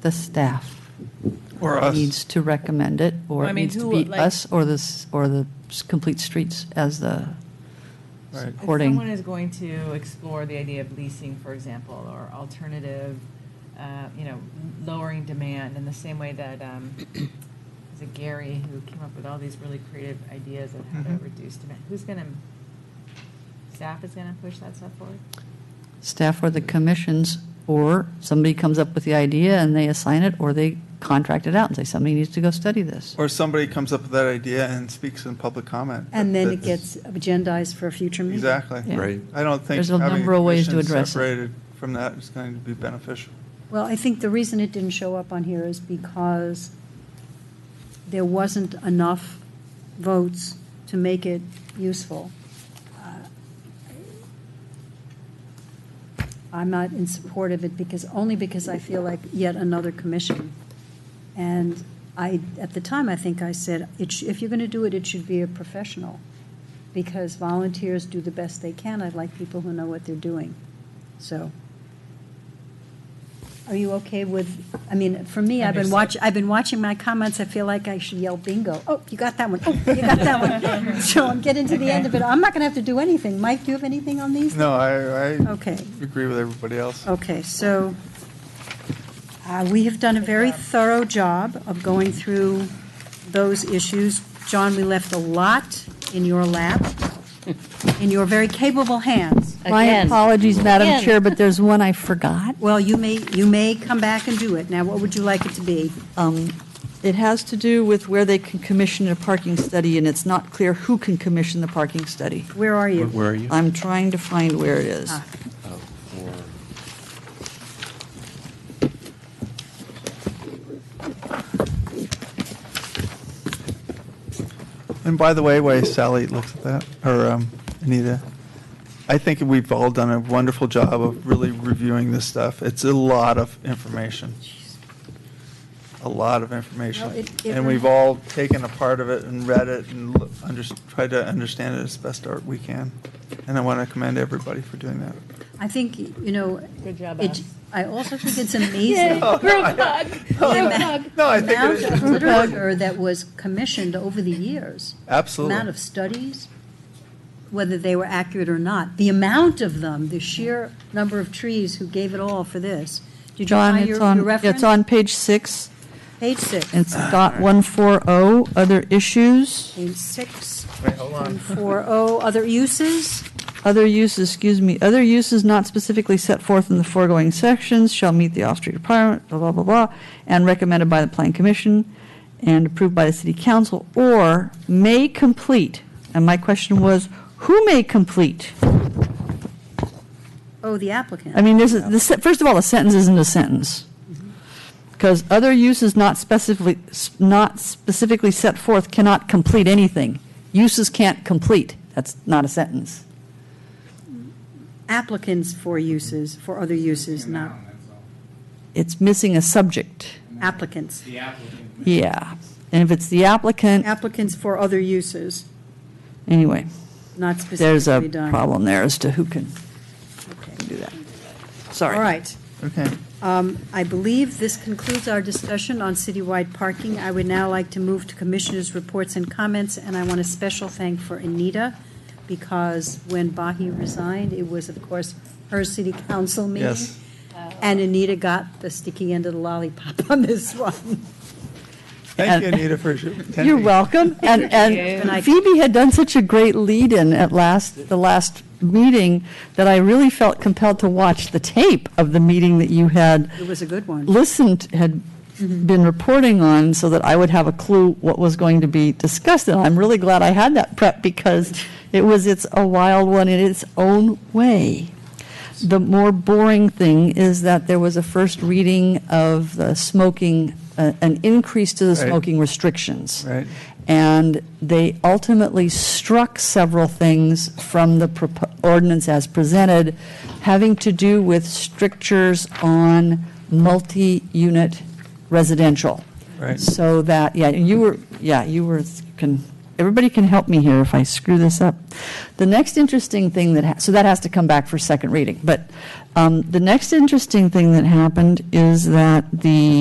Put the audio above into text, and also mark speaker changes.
Speaker 1: the staff
Speaker 2: Or us.
Speaker 1: needs to recommend it, or
Speaker 3: I
Speaker 1: it
Speaker 3: mean,
Speaker 1: needs to
Speaker 3: who,
Speaker 1: be
Speaker 3: like-
Speaker 1: us or the, s- or the s- complete streets as the
Speaker 2: Right.
Speaker 3: If
Speaker 1: Hoarding.
Speaker 3: someone is going to explore the idea of leasing, for example, or alternative, uh, you know, lowering demand in the same way that, um, is it Gary who came up with all these really creative ideas of how to
Speaker 2: Mhm.
Speaker 3: reduce demand? Who's going to, staff is going to push that stuff forward?
Speaker 1: staff or the commissions, or somebody comes up with the idea and they assign it, or they contract it out and say, somebody needs to go study this.
Speaker 2: Or somebody comes up with that idea and speaks in public comment.
Speaker 4: And then it
Speaker 2: That's-
Speaker 4: gets agendized for a future meeting.
Speaker 2: Exactly.
Speaker 1: Yeah.
Speaker 5: Right.
Speaker 2: I don't think
Speaker 1: There's a
Speaker 2: having
Speaker 1: number of ways to
Speaker 2: commissions
Speaker 1: address it.
Speaker 2: Separated from that is going to be beneficial.
Speaker 4: Well, I think the reason it didn't show up on here is because there wasn't enough votes to make it useful. Uh, I'm not in support of it because, only because I feel like yet another commission. And I, at the time, I think I said, it sh- if you're going to do it, it should be a professional, because volunteers do the best they can. I'd like people who know what they're doing. So, are you okay with, I mean, for me, I've been watch, I've been watching my comments. I feel like I should yell bingo. Oh, you got that one. Oh, you got that one. So I'm getting to the end of it. I'm not going to have to do anything. Mike, do you have anything on these?
Speaker 2: No, I, I
Speaker 4: Okay.
Speaker 2: agree with everybody else.
Speaker 4: Okay, so uh, we have done a very thorough job of going through those issues. John, we left a lot in your lap, in your very capable hands.
Speaker 1: My
Speaker 6: Again.
Speaker 1: apologies, Madam
Speaker 6: Again.
Speaker 1: Chair, but there's one I forgot.
Speaker 4: Well, you may, you may come back and do it. Now, what would you like it to be?
Speaker 7: Um, It has to do with where they can commission a parking study, and it's not clear who can commission the parking study.
Speaker 4: Where are
Speaker 5: Where-
Speaker 4: you?
Speaker 5: Where are you?
Speaker 7: I'm trying to find where it is.
Speaker 4: Ah.
Speaker 5: Oh, or-
Speaker 2: And by the way, while Sally looks at that, or um, Anita, I think we've all done a wonderful job of really reviewing this stuff. It's a lot of information. A lot of
Speaker 4: Well,
Speaker 2: information.
Speaker 4: it- it
Speaker 2: And
Speaker 4: rem-
Speaker 2: we've all taken a part of it and read it and l- under, tried to understand it as best art we can. And I want to commend everybody for doing that.
Speaker 4: I think, you know,
Speaker 3: Good job,
Speaker 4: it,
Speaker 3: us. Oh,
Speaker 4: I also think it's amazing.
Speaker 6: Group hug, group hug.
Speaker 2: No, I think it
Speaker 4: Amount
Speaker 2: is,
Speaker 4: of literature that was commissioned over the years. amount
Speaker 2: absolutely.
Speaker 4: of studies, whether they were accurate or not, the amount of them, the sheer number of trees who gave it all for this. Did you
Speaker 1: John,
Speaker 4: find your
Speaker 1: it's
Speaker 4: your
Speaker 1: on,
Speaker 4: reference?
Speaker 1: it's on page six.
Speaker 4: Page six.
Speaker 1: It's dot
Speaker 7: oh,
Speaker 1: 140, other issues,
Speaker 4: Page six. Four oh, other uses?
Speaker 7: Other uses, excuse me, other uses not specifically set forth in the foregoing sections shall meet the off-street requirement, blah, blah, blah, blah, and recommended by the Plan Commission and approved by the City Council, or may complete. And my question was, who may complete?
Speaker 4: Oh, the
Speaker 7: I
Speaker 4: applicant.
Speaker 7: mean, this is, the se- first of all, the sentence isn't a sentence. Because other uses not specifically, s- not specifically set forth cannot complete anything. Uses can't complete. That's not a sentence.
Speaker 4: Applicants for uses, for other uses, not
Speaker 7: It's missing a subject.
Speaker 4: applicants.
Speaker 7: Yeah. And if it's the applicant,
Speaker 4: Applicants for other uses,
Speaker 7: anyway,
Speaker 4: not
Speaker 7: there's a
Speaker 4: specifically done.
Speaker 7: problem there as to who can do that. Sorry.
Speaker 4: All right.
Speaker 2: Okay.
Speaker 4: Um, I believe this concludes our discussion on citywide parking. I would now like to move to commissioners' reports and comments, and I want a special thank for Anita, because when Bahi resigned, it was, of course, her city council meeting.
Speaker 2: Yes.
Speaker 4: And Anita got the sticky end of the lollipop on this one.
Speaker 2: Thank you, Anita, for attending.
Speaker 7: You're welcome. And,
Speaker 4: And I-
Speaker 7: and Phoebe had done such a great lead-in at last, the last meeting, that I really felt compelled to watch the tape of the meeting that you had
Speaker 4: It was a good one.
Speaker 7: listened, had been reporting on, so that I would have a clue what was going to be discussed. And I'm really glad I had that prep, because it was, it's a wild one in its own way. The more boring thing is that there was a first reading of the smoking, uh, an increase to the
Speaker 2: Right.
Speaker 7: smoking restrictions.
Speaker 2: Right.
Speaker 7: And they ultimately struck several things from the propo- ordinance as presented, having to do with strictures on multi-unit residential.
Speaker 2: Right.
Speaker 7: So that, yeah, and you were, yeah, you were, can, everybody can help me here if I screw this up. The next interesting thing that, ha- so that has to come back for second reading, but um, the next interesting thing that happened is that the